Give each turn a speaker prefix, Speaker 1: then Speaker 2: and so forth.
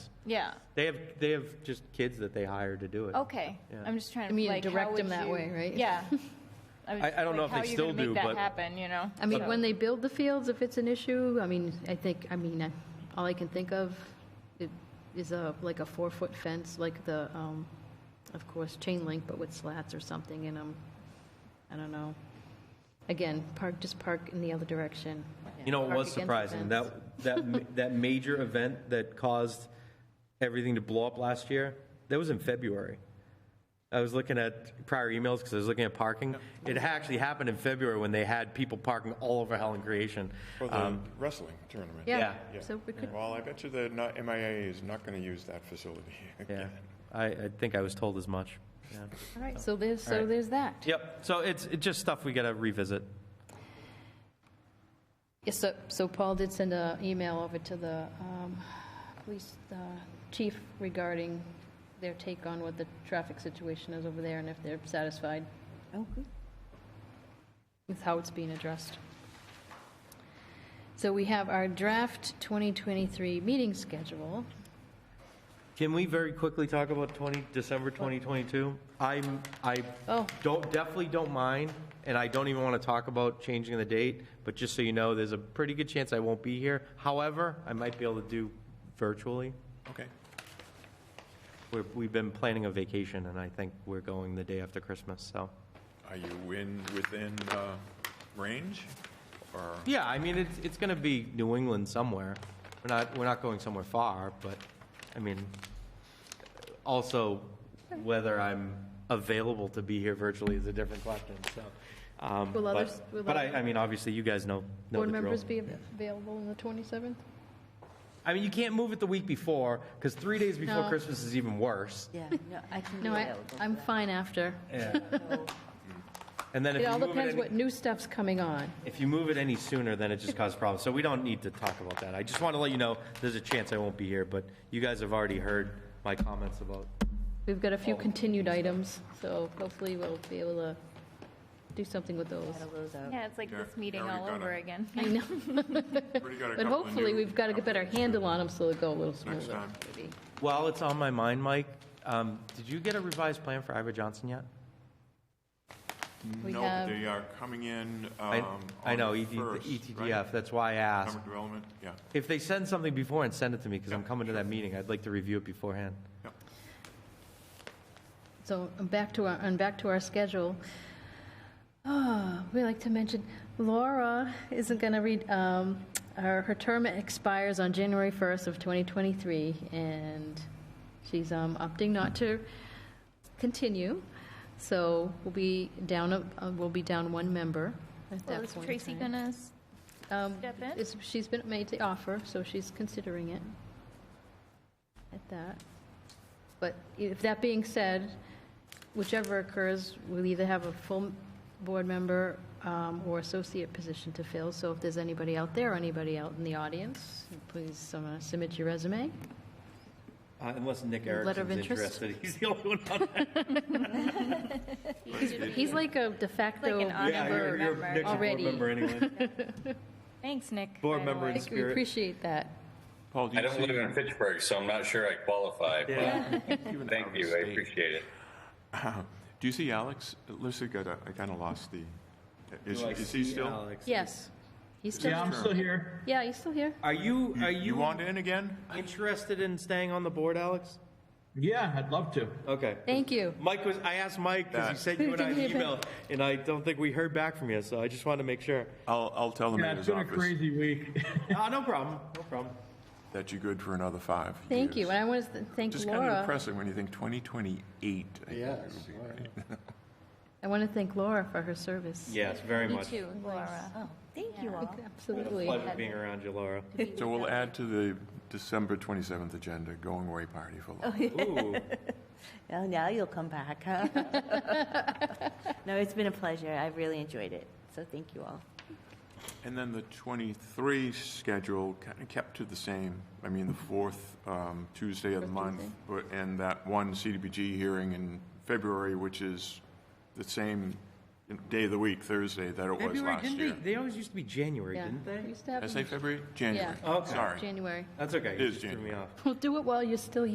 Speaker 1: Yeah,
Speaker 2: They have, they have just kids that they hire to do it.
Speaker 1: okay.
Speaker 2: Yeah.
Speaker 1: I'm just trying to,
Speaker 3: I mean,
Speaker 1: like, how
Speaker 3: direct
Speaker 1: would
Speaker 3: them that
Speaker 1: you-
Speaker 3: way, right?
Speaker 1: Yeah. I was
Speaker 2: I- I
Speaker 1: just
Speaker 2: don't know
Speaker 1: like,
Speaker 2: if they
Speaker 1: how you
Speaker 2: still
Speaker 1: gonna make
Speaker 2: do,
Speaker 1: that
Speaker 2: but-
Speaker 1: Happen, you know?
Speaker 3: I mean,
Speaker 1: So-
Speaker 3: when they build the fields, if it's an issue, I mean, I think, I mean, I- all I can think of i- is a, like a four-foot fence, like the, um, of course, chain link, but with slats or something, and um, I don't know. Again, park, just park in the other direction.
Speaker 2: You know, it
Speaker 3: Park
Speaker 2: was
Speaker 3: against the
Speaker 2: surprising,
Speaker 3: fence.
Speaker 2: that, that, ma- that major event that caused everything to blow up last year, that was in February. I was looking at prior emails because I was looking at parking. It actually happened in February when they had people parking all over Helen Creation.
Speaker 4: For the
Speaker 2: Um,
Speaker 4: wrestling tournament.
Speaker 3: Yeah,
Speaker 2: yeah.
Speaker 3: so we could,
Speaker 4: Well, I bet you the not- MIA is not going to use that facility
Speaker 2: Yeah,
Speaker 4: again.
Speaker 2: I, I think I was told as much. Yeah.
Speaker 1: All right, so there's,
Speaker 2: All
Speaker 1: so
Speaker 2: right.
Speaker 1: there's that.
Speaker 2: Yep, so it's, it's just stuff we gotta revisit.
Speaker 3: yes, so, so Paul did send an email over to the, um, police, uh, chief regarding their take on what the traffic situation is over there and if they're satisfied
Speaker 5: Oh, good.
Speaker 3: with how it's being addressed. So we have our draft 2023 meeting schedule.
Speaker 2: Can we very quickly talk about 20, December 2022? I'm, I
Speaker 3: Oh.
Speaker 2: don't, definitely don't mind, and I don't even want to talk about changing the date, but just so you know, there's a pretty good chance I won't be here. However, I might be able to do virtually.
Speaker 4: Okay.
Speaker 2: We're, we've been planning a vacation, and I think we're going the day after Christmas, so.
Speaker 4: Are you in, within uh, range? Or,
Speaker 2: Yeah, I mean, it's, it's going to be New England somewhere. We're not, we're not going somewhere far, but, I mean, also, whether I'm available to be here virtually is a different question, so. um,
Speaker 3: Will
Speaker 2: but-
Speaker 3: others- will
Speaker 2: But I,
Speaker 3: other-
Speaker 2: I mean, obviously, you guys know, know
Speaker 3: Board
Speaker 2: the drill.
Speaker 3: members be available on the 27th?
Speaker 2: I mean, you can't move it the week before, because three days before
Speaker 3: No.
Speaker 2: Christmas is even worse.
Speaker 5: Yeah, no, I can be
Speaker 3: No, I,
Speaker 5: available for
Speaker 3: I'm
Speaker 5: that.
Speaker 3: fine after.
Speaker 2: And then if
Speaker 3: It
Speaker 2: you
Speaker 3: all
Speaker 2: move it
Speaker 3: depends
Speaker 2: any,
Speaker 3: what new stuff's coming on.
Speaker 2: if you move it any sooner, then it just causes problems. So we don't need to talk about that. I just want to let you know, there's a chance I won't be here, but you guys have already heard my comments about
Speaker 3: We've got a
Speaker 4: Oh.
Speaker 3: few continued items, so hopefully we'll be able to do something with those.
Speaker 5: Settle those out.
Speaker 1: Yeah, it's like
Speaker 4: Yeah,
Speaker 1: this meeting
Speaker 4: yeah, we
Speaker 1: all
Speaker 4: gotta-
Speaker 1: over again.
Speaker 3: I know,
Speaker 4: But you got a
Speaker 3: but
Speaker 4: couple of
Speaker 3: hopefully
Speaker 4: new-
Speaker 3: we've got a
Speaker 4: couple
Speaker 3: better
Speaker 4: of new-
Speaker 3: handle on them so they'll go a little
Speaker 4: Next
Speaker 3: smoother.
Speaker 4: time.
Speaker 3: maybe.
Speaker 2: While it's on my mind, Mike, um, did you get a revised plan for Ivor Johnson yet?
Speaker 3: We
Speaker 4: No,
Speaker 3: have-
Speaker 4: but they are coming in
Speaker 2: I,
Speaker 4: um,
Speaker 2: I
Speaker 4: on
Speaker 2: know,
Speaker 4: the
Speaker 2: ED, the E
Speaker 4: 1st,
Speaker 2: ETDF,
Speaker 4: right?
Speaker 2: that's why I asked.
Speaker 4: Economic Development, yeah.
Speaker 2: If they send something before and send it to me, because I'm
Speaker 4: Yeah,
Speaker 2: coming to that meeting, I'd like to review it beforehand.
Speaker 4: yeah.
Speaker 3: So um, back to our, and back to our schedule. Ah, we like to mention Laura isn't going to read, um, her, her term expires on January 1st of 2023, and she's um, opting not to continue. So we'll be down, a- uh, we'll be down one member at
Speaker 1: Well,
Speaker 3: that
Speaker 1: is
Speaker 3: point. in
Speaker 1: Tracy
Speaker 3: time.
Speaker 1: gonna s-
Speaker 3: Um,
Speaker 1: step in?
Speaker 3: it's- She's been made the offer, so she's considering it at that. But if that being said, whichever occurs, we'll either have a full board member um, or associate position to fill. So if there's anybody out there, anybody out in the audience, please uh, submit your resume.
Speaker 2: Uh, Unless Nick
Speaker 3: Letter of
Speaker 2: Erickson's
Speaker 3: interest.
Speaker 2: interested, he's the only one on that.
Speaker 3: He's like a de facto.
Speaker 1: Like an Yeah,
Speaker 2: Yeah,
Speaker 1: you're-
Speaker 2: you're,
Speaker 1: you're
Speaker 2: you're
Speaker 1: member.
Speaker 2: Nick's a board
Speaker 3: Already.
Speaker 2: member anyway.
Speaker 1: Thanks, Nick.
Speaker 2: Board
Speaker 1: by the
Speaker 2: member
Speaker 1: way.
Speaker 2: in
Speaker 3: I think We
Speaker 2: spirit.
Speaker 3: appreciate that.
Speaker 4: Paul, do
Speaker 6: I
Speaker 4: you
Speaker 6: don't
Speaker 4: see
Speaker 6: live in Pittsburgh, so I'm not sure I qualify. but
Speaker 4: even out
Speaker 6: Thank
Speaker 4: of
Speaker 6: you, I
Speaker 4: state?
Speaker 6: appreciate it.
Speaker 4: Do you see Alex? Lucy got a, I kind of lost the, is, is he still?
Speaker 3: Yes. He's still,
Speaker 4: Yeah, I'm still
Speaker 7: here.
Speaker 3: yeah, he's still here.
Speaker 2: Are you, are
Speaker 4: You
Speaker 2: you
Speaker 4: want in again?
Speaker 2: interested in staying on the board, Alex?
Speaker 7: Yeah, I'd love to.
Speaker 2: Okay.
Speaker 3: Thank you.
Speaker 2: Mike was, I asked Mike, because he
Speaker 4: That-
Speaker 2: sent you and I an email, and I don't think we heard back from you, so I just wanted to make sure.
Speaker 4: I'll, I'll tell him
Speaker 7: Yeah,
Speaker 4: in
Speaker 7: it's
Speaker 4: his
Speaker 7: been a
Speaker 4: office
Speaker 7: crazy week.
Speaker 2: Ah, no problem, no problem.
Speaker 4: that you're good for another five
Speaker 3: Thank you.
Speaker 4: years.
Speaker 3: And I want to thank
Speaker 4: Just kind of
Speaker 3: Laura.
Speaker 4: depressing when you think 2028. Yes.
Speaker 3: I want to thank Laura for her service.
Speaker 2: Yes, very
Speaker 1: You
Speaker 2: much.
Speaker 1: too, Laura.
Speaker 5: Oh, thank you all.
Speaker 3: Absolutely.
Speaker 2: Pleasure being around you, Laura.
Speaker 4: So we'll add to the December 27th agenda, going away party for
Speaker 3: Oh,
Speaker 4: Laura.
Speaker 2: Ooh.
Speaker 5: Well, now you'll come back, huh? No, it's been a pleasure. I've really enjoyed it. So thank you all.
Speaker 4: And then the 23 schedule kind of kept to the same. I mean, the fourth um, Tuesday of the month, but- and that one CDBG hearing in February, which is the same day of the week, Thursday, that it was
Speaker 2: February,
Speaker 4: last
Speaker 2: didn't
Speaker 4: year.
Speaker 2: they, they always used to be January,
Speaker 3: Yeah.
Speaker 2: didn't
Speaker 3: We
Speaker 2: they?
Speaker 3: used to have
Speaker 4: Did I
Speaker 3: them
Speaker 4: say February? January.
Speaker 2: Okay.
Speaker 4: Sorry.
Speaker 3: in January.
Speaker 2: That's okay.
Speaker 4: It is
Speaker 2: You threw me
Speaker 4: January.
Speaker 2: off.
Speaker 3: Well, do it while you're still